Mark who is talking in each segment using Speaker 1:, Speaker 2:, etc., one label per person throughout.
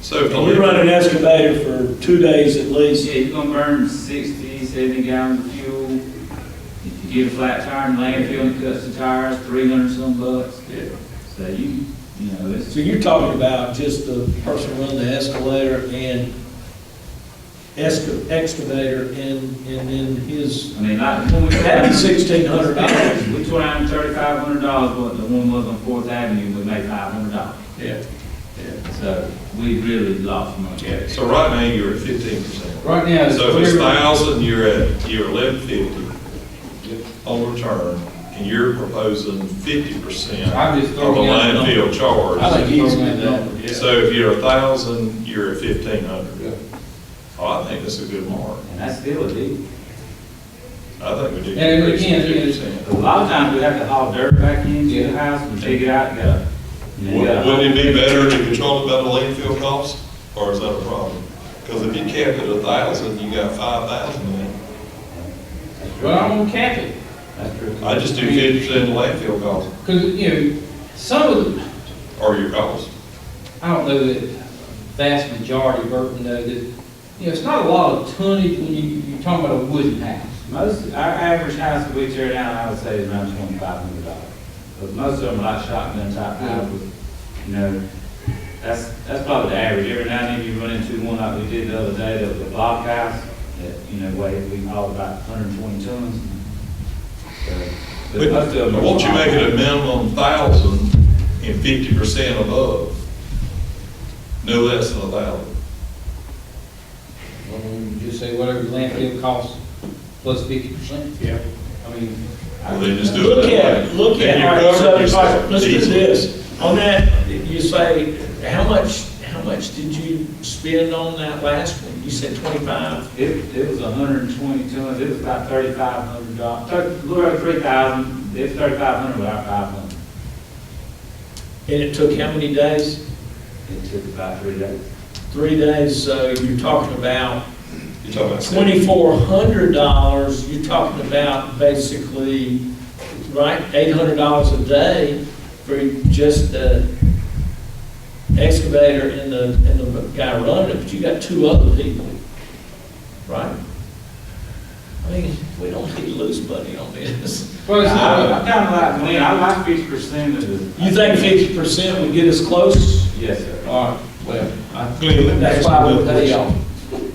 Speaker 1: So
Speaker 2: And We run an excavator for two days at least.
Speaker 3: Yeah, you're gonna burn 60, 70 gallons of fuel. If you get a flat tire in landfill and cuts the tires, three hundred some bucks. So you, you know, it's,
Speaker 2: So you're talking about just the person running the escalator and esca- excavator and, and then his,
Speaker 3: I mean, like, when we.
Speaker 2: that'd be sixteen hundred dollars.
Speaker 3: We tore down thirty-five hundred dollars, but the one was on Fourth Avenue, we made five hundred dollars.
Speaker 1: Yeah,
Speaker 3: So we really lost money.
Speaker 1: yeah. So right now, you're at fifteen percent.
Speaker 4: Right now, it's
Speaker 1: So if it's
Speaker 4: clear,
Speaker 1: thousand, you're at, you're eleven fifty on return, and you're proposing fifty percent of
Speaker 4: I'm just
Speaker 1: the
Speaker 4: throwing out a number.
Speaker 1: landfill
Speaker 4: I
Speaker 1: charge.
Speaker 4: think he's made that.
Speaker 1: So if you're a thousand, you're at fifteen hundred. Oh, I think that's a good mark.
Speaker 3: And that's still a deal.
Speaker 1: I think we do.
Speaker 4: And
Speaker 1: increase
Speaker 4: again,
Speaker 1: to
Speaker 4: it is-
Speaker 1: 50%.
Speaker 3: A lot of times we have to haul dirt back into the house and dig it out, you gotta. you know, you gotta-
Speaker 1: Wouldn't wouldn't it be better to control it by the landfill cost, or is that a problem? Because if you cap it a thousand, you got five thousand in.
Speaker 4: Well, I'm gonna cap it,
Speaker 3: That's true.
Speaker 1: I just do fifty percent of the landfill cost,
Speaker 4: because, you know, some of the,
Speaker 1: or your cost.
Speaker 4: I don't know that vast majority of Burton know that, you know, it's not a lot of tonnage when you, you're talking about a wooden house.
Speaker 3: Most, our average house that we tear down, I would say is around twenty-five hundred dollars. Because most of them are like shotgun type houses, you know, that's, that's probably the average. Every now and then you run into one like we did the other day, that was a block house, that, you know, weighed, we hauled about hundred and twenty tons. So,
Speaker 1: But
Speaker 3: most of them are
Speaker 1: won't you
Speaker 3: small.
Speaker 1: make it a minimum thousand and fifty percent above? No less than a thousand.
Speaker 4: Well, you just say whatever your landfill costs plus fifty percent. Yeah. I mean,
Speaker 1: Well, then just do it
Speaker 2: Look
Speaker 1: that way.
Speaker 2: at, look
Speaker 1: Then
Speaker 2: at,
Speaker 1: you're
Speaker 2: all right, so
Speaker 1: covering
Speaker 2: if I,
Speaker 1: yourself.
Speaker 2: let's do
Speaker 1: Easy.
Speaker 2: this. On that, you say, how much, how much did you spend on that last one? You said twenty-five?
Speaker 3: It, it was hundred and twenty tons, it was about thirty-five hundred dollars, thirty, little three thousand, it's thirty-five hundred, about five hundred.
Speaker 2: And it took how many days?
Speaker 3: It took about three days.
Speaker 2: Three days, so you're talking about
Speaker 1: You're talking about.
Speaker 2: twenty-four hundred dollars, you're talking about basically, right, eight hundred dollars a day for just the excavator and the, and the guy running it, but you got two other people, right? I mean, we don't need to lose money on this.
Speaker 4: well, it's
Speaker 3: I
Speaker 4: not,
Speaker 3: I kinda like Glenn, I like fifty percent of the.
Speaker 2: You think fifty percent would get us close?
Speaker 3: Yes, sir.
Speaker 2: All right, well,
Speaker 5: Glenn, let me ask
Speaker 2: that's
Speaker 5: you
Speaker 2: why we
Speaker 5: another
Speaker 2: pay
Speaker 5: question.
Speaker 2: y'all.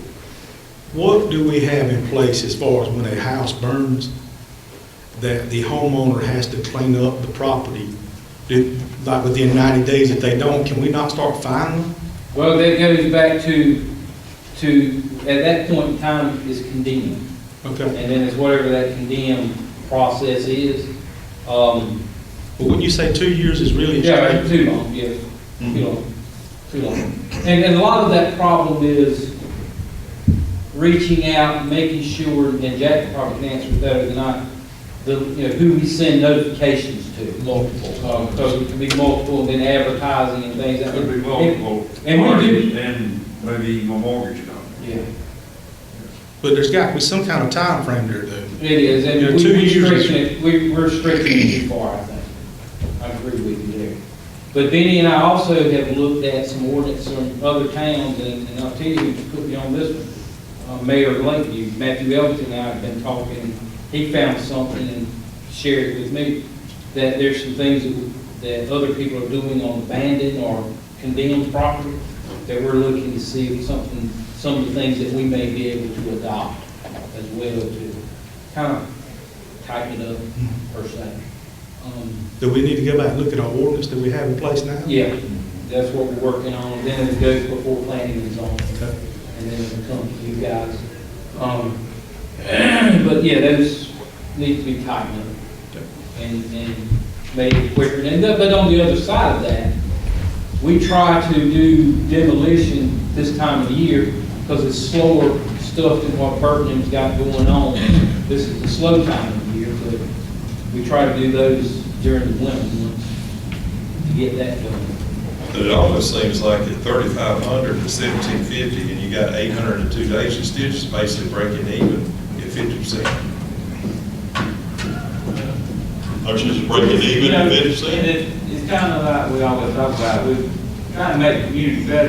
Speaker 5: What do we have in place as far as when a house burns, that the homeowner has to clean up the property? Did- Like within 90 days, if they don't, can we not start fining them?
Speaker 4: well, that goes back to, to, at that point in time, is condemned.
Speaker 5: Okay.
Speaker 4: And then it's whatever that condemned process is. Um,
Speaker 5: But wouldn't you say two years is really?
Speaker 4: Yeah, too long, yeah, too long, too long. And, and a lot of that problem is reaching out, and making sure, and Jack probably can answer better than I, the, you know, who we send notifications to. Multiple. Because it can be multiple, then advertising and things. that-
Speaker 6: Could be multiple.
Speaker 4: And we do-
Speaker 6: Then maybe my mortgage company.
Speaker 4: Yeah,
Speaker 5: But there's got to be some kind of time frame there, though.
Speaker 4: it is,
Speaker 5: Yeah,
Speaker 4: and
Speaker 5: two
Speaker 4: we- we're
Speaker 5: years.
Speaker 4: stretching it, we- we're stretching it too far, I think. I agree with you there. But Benny and I also have looked at some ordinance from other towns, and, and I'll tell you, you put me on this one. Uh, Mayor of Lakeview, Matthew Elton and I have been talking, he found something and shared it with me, that there's some things that, that other people are doing on abandoned or condemned property, that we're looking to see if something, some of the things that we may be able to adopt as well to kind of tighten it up per se. Um,
Speaker 5: Do we need to go back and look at our ordinance that we have in place now?
Speaker 4: yeah, that's what we're working on, then it goes before planning is on,
Speaker 5: Okay.
Speaker 4: and then it'll come to you guys. Um, But yeah, those need to be tightened up and, and made quicker. And, the- but on the other side of that, we try to do demolition this time of year because it's slower stuff than what Birmingham's got going on. This is the slow time of year, but we try to do those during the winter months to get that done.
Speaker 1: But it almost seems like at thirty-five hundred to seventeen fifty, and you got eight hundred and two days, you're still just basically breaking even at fifty percent. Aren't you just breaking even
Speaker 3: You know,
Speaker 1: at fifty percent?
Speaker 3: and it- It's kinda like we always talk about, we try to make the community better,